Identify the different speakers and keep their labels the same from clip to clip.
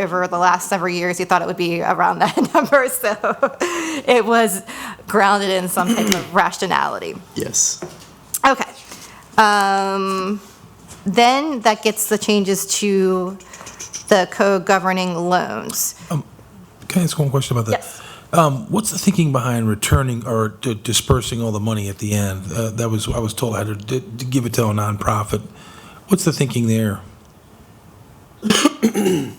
Speaker 1: over the last several years, you thought it would be around that number, so it was grounded in some type of rationality.
Speaker 2: Yes.
Speaker 1: Okay. Um, Then that gets the changes to the code governing loans.
Speaker 3: Can I ask one question about that?
Speaker 1: Yes.
Speaker 3: Um, what's the thinking behind returning or d- dispersing all the money at the end? Uh, that was, I was told I had to, d- to give it to a nonprofit. What's the thinking there?
Speaker 1: What do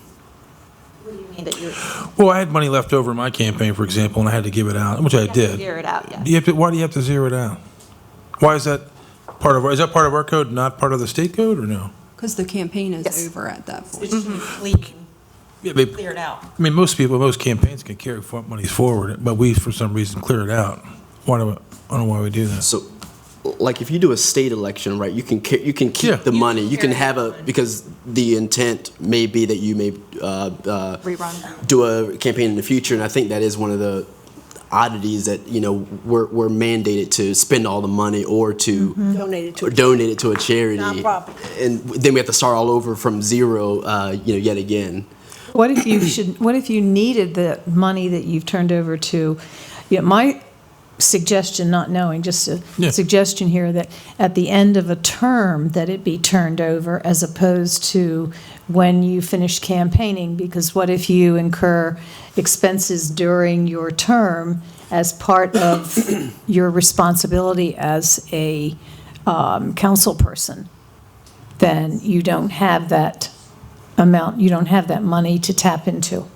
Speaker 1: you mean that you
Speaker 3: Well, I had money left over in my campaign, for example, and I had to give it out, which I did.
Speaker 1: Zero it out, yeah.
Speaker 3: Do you have to, why do you have to zero it out? Why is that part of, is that part of our code, not part of the state code, or no?
Speaker 4: Because the campaign
Speaker 1: Yes.
Speaker 4: is over at that point.
Speaker 5: It's leak,
Speaker 3: Yeah, they,
Speaker 5: cleared out.
Speaker 3: I mean, most people, most campaigns can carry for- monies forward, but we, for some reason, clear it out. Why do, I don't know why we do that.
Speaker 2: So, like, if you do a state election, right, you can ca- you can keep
Speaker 3: Yeah.
Speaker 2: the
Speaker 3: You
Speaker 2: money. You can
Speaker 5: carry
Speaker 2: have
Speaker 5: the
Speaker 2: a
Speaker 5: money.
Speaker 2: because the intent may be that you may uh, uh,
Speaker 1: Rerun.
Speaker 2: do a campaign in the future, and I think that is one of the oddities that you know we're, we're mandated to spend all the money or to
Speaker 5: Donate it to
Speaker 2: or
Speaker 5: a
Speaker 2: donate it to a charity,
Speaker 5: Mm-hmm. Nonprofit.
Speaker 2: and then we have to start all over from zero, uh, you know, yet again.
Speaker 6: What if you should, what if you needed the money that you've turned over to, you know, my suggestion, not knowing, just a
Speaker 3: Yeah.
Speaker 6: suggestion here, that at the end of a term, that it be turned over as opposed to when you finish campaigning, because what if you incur expenses during your term as part of your responsibility as a um, council person? Then you don't have that amount, you don't have that money to tap into.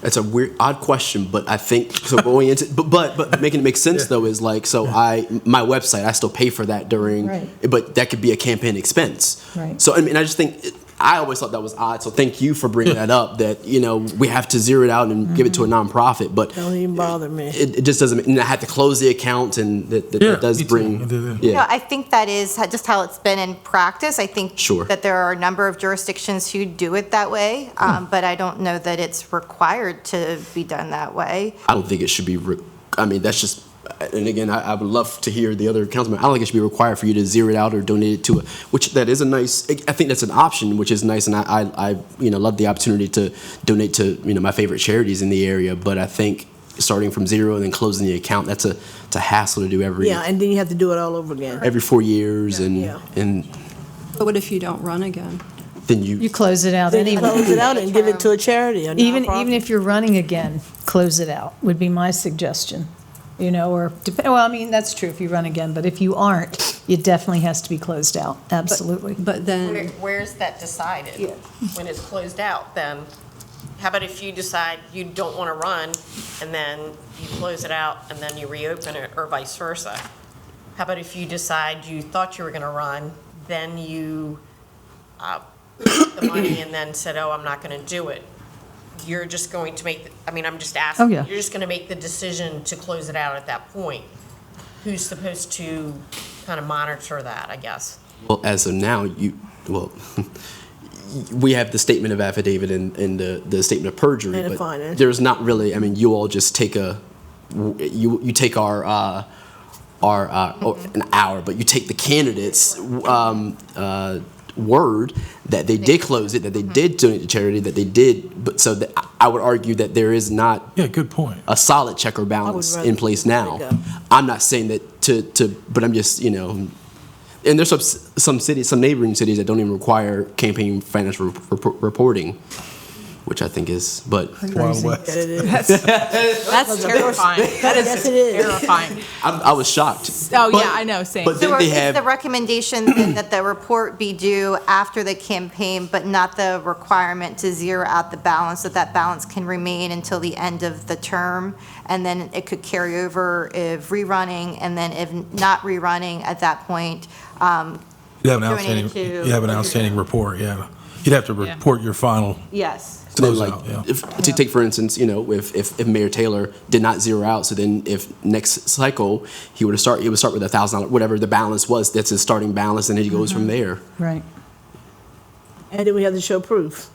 Speaker 2: That's a weird, odd question, but I think so. Going into, but but but making it make sense though is like so. I my website, I still pay for that during,
Speaker 6: Right.
Speaker 2: but that could be a campaign expense.
Speaker 6: Right.
Speaker 2: So I mean, I just think it, I always thought that was odd. So thank you for bringing that up. That you know we have to zero it out and give it to a nonprofit, but
Speaker 5: Don't even bother me.
Speaker 2: it, it just doesn't. And I have to close the account, and that, that,
Speaker 3: Yeah,
Speaker 2: that does
Speaker 3: me too. I
Speaker 2: bring.
Speaker 3: did that.
Speaker 2: Yeah.
Speaker 1: No, I think that is ho- just how it's been in practice. I think
Speaker 2: Sure.
Speaker 1: that there are a number of jurisdictions who do it that way,
Speaker 2: Hmm.
Speaker 1: um, but I don't know that it's required to be done that way.
Speaker 2: I don't think it should be. Re- I mean, that's just. And again, I, I would love to hear the other councilman. I don't think it should be required for you to zero it out or donate it to a, which that is a nice. I think that's an option, which is nice, and I, I, I you know, love the opportunity to donate to you know my favorite charities in the area. But I think starting from zero and then closing the account that's a, it's a hassle to do every
Speaker 5: Yeah, and then you have to do it all over again.
Speaker 2: every four years, and
Speaker 5: Yeah.
Speaker 2: and
Speaker 4: But what if you don't run again?
Speaker 2: then you.
Speaker 6: You close it out
Speaker 5: Then you
Speaker 6: anyway.
Speaker 5: close it out and give it to a charity or
Speaker 6: Even, even
Speaker 5: nonprofit.
Speaker 6: if you're running again, close it out, would be my suggestion. You know, or, dep- well, I mean, that's true if you run again, but if you aren't, it definitely has to be closed out, absolutely.
Speaker 4: But
Speaker 7: Where-
Speaker 6: Mm.
Speaker 4: then,
Speaker 7: Where's that decided? When it's closed out, then, how about if you decide you don't want to run, and then you close it out, and then you reopen it, or vice versa? How about if you decide you thought you were going to run, then you, uh, took the money, and then said, oh, I'm not going to do it? You're just going to make, I mean, I'm just asking.
Speaker 6: Oh, yeah.
Speaker 7: You're just going to make the decision to close it out at that point. Who's supposed to kind of monitor that, I guess?
Speaker 2: Well, as of now, you, well, we have the statement of affidavit and, and the, the statement of perjury.
Speaker 5: And the
Speaker 2: but
Speaker 5: finance.
Speaker 2: There's not really, I mean, you all just take a, you, you take our, uh, our, uh, oh, an hour, but you take the candidates, um, uh, word that they did close it, that they did donate to charity, that they did, but so that, I- I would argue that there is not
Speaker 3: Yeah, good point.
Speaker 2: a solid check or balance
Speaker 5: rather
Speaker 2: in place
Speaker 5: let
Speaker 2: now.
Speaker 5: it go.
Speaker 2: I'm not saying that to, to, but I'm just, you know, and there's some, some cities, some neighboring cities that don't even require campaign financial rep- rep- reporting, which I think is, but
Speaker 3: Wild West.
Speaker 5: That it is.
Speaker 8: That's terrifying. That
Speaker 5: Yes,
Speaker 8: is
Speaker 5: it is.
Speaker 8: terrifying.
Speaker 2: I, I was shocked.
Speaker 8: Oh,
Speaker 2: But-
Speaker 8: yeah, I know, same.
Speaker 2: But
Speaker 1: So
Speaker 2: then
Speaker 1: are-
Speaker 2: they
Speaker 1: is the
Speaker 2: have,
Speaker 1: recommendation then that the report be due after the campaign, but not the requirement to zero out the balance, that that balance can remain until the end of the term? And then it could carry over if rerunning, and then if not rerunning at that point, um,
Speaker 3: You have an
Speaker 1: Doing it
Speaker 3: outstanding,
Speaker 1: to-
Speaker 3: you have an outstanding report, yeah. You'd have to report your final
Speaker 1: yes.
Speaker 2: so then,
Speaker 3: closeout, yeah.
Speaker 2: like, if, to take for instance, you know, if, if, if Mayor Taylor did not zero out, so then if next cycle, he would have start, he would start with a thousand dollar, whatever the balance was, that's his starting balance, and then he goes
Speaker 1: Mm-hmm.
Speaker 2: from there.
Speaker 6: Right.
Speaker 5: And then we have to show proof.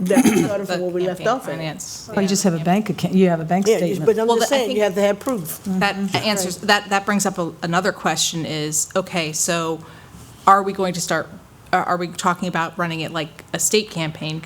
Speaker 5: That we started from where we left off at.
Speaker 8: Finance.
Speaker 6: Or you just have a bank account, you have a bank
Speaker 5: Yeah, you-
Speaker 6: statement.
Speaker 5: but I'm
Speaker 8: Well,
Speaker 5: just
Speaker 8: I
Speaker 5: saying,
Speaker 8: think-
Speaker 5: you have to have proof.
Speaker 8: That answers, that, that brings up a- another question is, okay, so are we going to start, are- are we talking about running it like a state campaign?